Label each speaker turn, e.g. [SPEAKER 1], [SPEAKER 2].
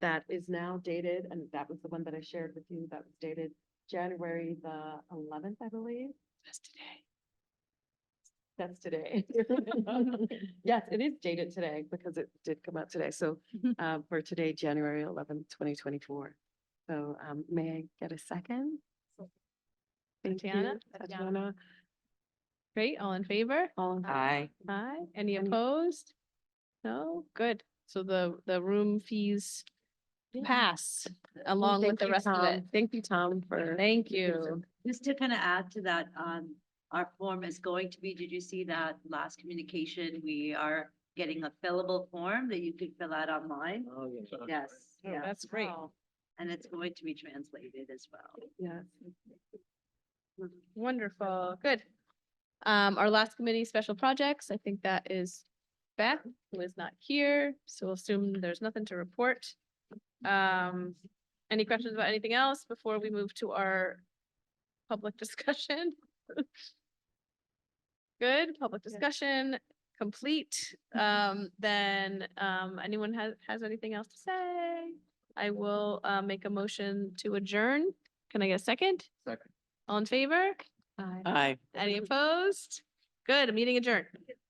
[SPEAKER 1] that is now dated, and that was the one that I shared with you, that was dated January the eleventh, I believe.
[SPEAKER 2] That's today.
[SPEAKER 1] That's today. Yes, it is dated today because it did come out today. So
[SPEAKER 2] Mhm.
[SPEAKER 1] uh, for today, January eleventh, twenty twenty-four. So um, may I get a second? Thank you,
[SPEAKER 2] Tatiana? Tatiana.
[SPEAKER 1] Tatiana,
[SPEAKER 2] Great, all in favor?
[SPEAKER 1] all in
[SPEAKER 3] Aye.
[SPEAKER 4] Um,
[SPEAKER 2] Aye. Any
[SPEAKER 1] Any-
[SPEAKER 2] opposed? No, good. So the, the room fees
[SPEAKER 1] Yeah.
[SPEAKER 2] pass along with
[SPEAKER 1] Thank
[SPEAKER 2] the
[SPEAKER 1] you,
[SPEAKER 2] rest of it.
[SPEAKER 1] Tom. Thank you, Tom, for.
[SPEAKER 2] Thank
[SPEAKER 1] you.
[SPEAKER 2] you.
[SPEAKER 4] Just to kind of add to that, um, our form is going to be, did you see that last communication? We are getting a fillable form that you can fill out online.
[SPEAKER 3] Oh, yeah.
[SPEAKER 4] Yes, yeah,
[SPEAKER 2] That's great.
[SPEAKER 4] and it's going to be translated as well.
[SPEAKER 1] Yes.
[SPEAKER 2] Wonderful, good. Um, our last committee, special projects, I think that is Beth, who is not here, so we'll assume there's nothing to report. Um, any questions about anything else before we move to our public discussion? Good, public discussion, complete. Um, then, um, anyone has, has anything else to say? I will, uh, make a motion to adjourn. Can I get a second?
[SPEAKER 3] Second.
[SPEAKER 2] All in favor?
[SPEAKER 1] Aye.
[SPEAKER 3] Aye.
[SPEAKER 2] Any opposed? Good, meeting adjourned.